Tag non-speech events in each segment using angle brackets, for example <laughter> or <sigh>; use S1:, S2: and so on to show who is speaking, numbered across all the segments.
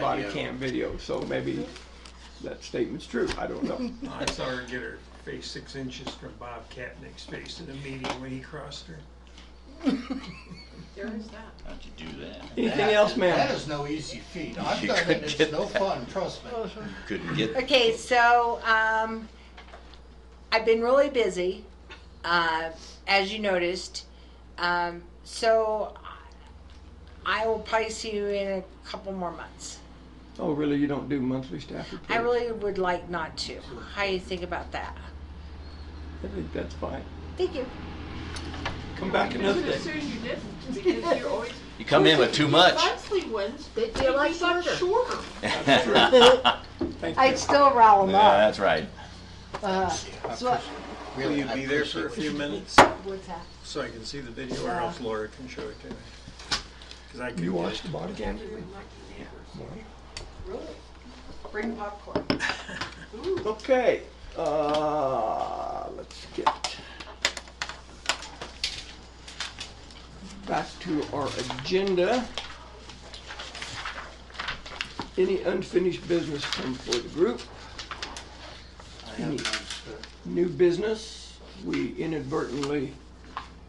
S1: body
S2: video.
S1: cam video, so maybe that statement's true, I don't
S3: <laughs>
S1: know.
S4: I saw her get her face six inches from Bob Katnick's face in a meeting when he crossed her.
S5: There is that.
S6: How'd you do that? You
S1: Anything else,
S2: That
S1: ma'am?
S2: is no easy feat.
S6: <laughs>
S2: I've done
S6: couldn't
S2: it, it's
S6: get
S2: no
S6: that.
S2: fun, trust me.
S6: couldn't get.
S3: Okay, so um, I've been really busy, uh, as you noticed. Um, so I will probably see you in a couple more months.
S1: Oh, really, you don't do monthly staff reports?
S3: I really would like not to. How do you think about that?
S1: I think that's fine.
S3: Thank you.
S1: Come back another
S5: Should
S1: day.
S5: assume you didn't, because you're always.
S6: You come in with too much.
S5: Monthly ones, they
S3: They're like
S5: got
S3: sugar.
S5: shorter.
S6: yeah,
S1: Thank
S7: I'd
S1: you.
S7: still
S1: Oh,
S7: rile them up.
S6: that's right.
S7: Uh, so I-
S2: Really,
S4: Will you
S2: I
S4: be there
S2: appreciate
S4: for a
S2: what you
S4: few
S2: do.
S4: minutes
S7: what's that?
S4: so I can see the video or else Laura can show it to me? Cause I
S1: You
S4: can,
S1: watched the body cam?
S5: Bring popcorn.
S1: <laughs> Okay, uh, let's get back to our agenda. Any unfinished business come for the group?
S2: I have none, sir.
S1: New business, we inadvertently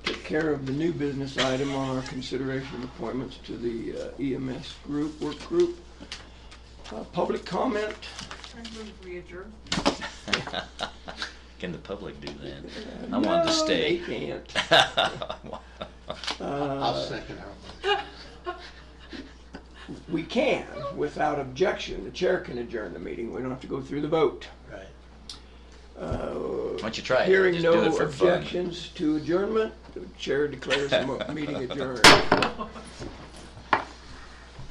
S1: took care of the new business item on our consideration appointments to the uh, EMS group, work group. Uh, Public comment,
S5: I move we adjourn.
S6: Can the public do that? I wanted to stay. <laughs>
S1: No, they can't.
S2: I'll second her.
S1: We can, without objection, the chair can adjourn the meeting, we don't have to go through the vote. Uh,
S2: Right.
S6: Why don't you try it?
S1: Hearing
S6: Just do
S1: no
S6: it for fun. <laughs>
S1: objections to adjournment, the chair declares the mo- meeting adjourned.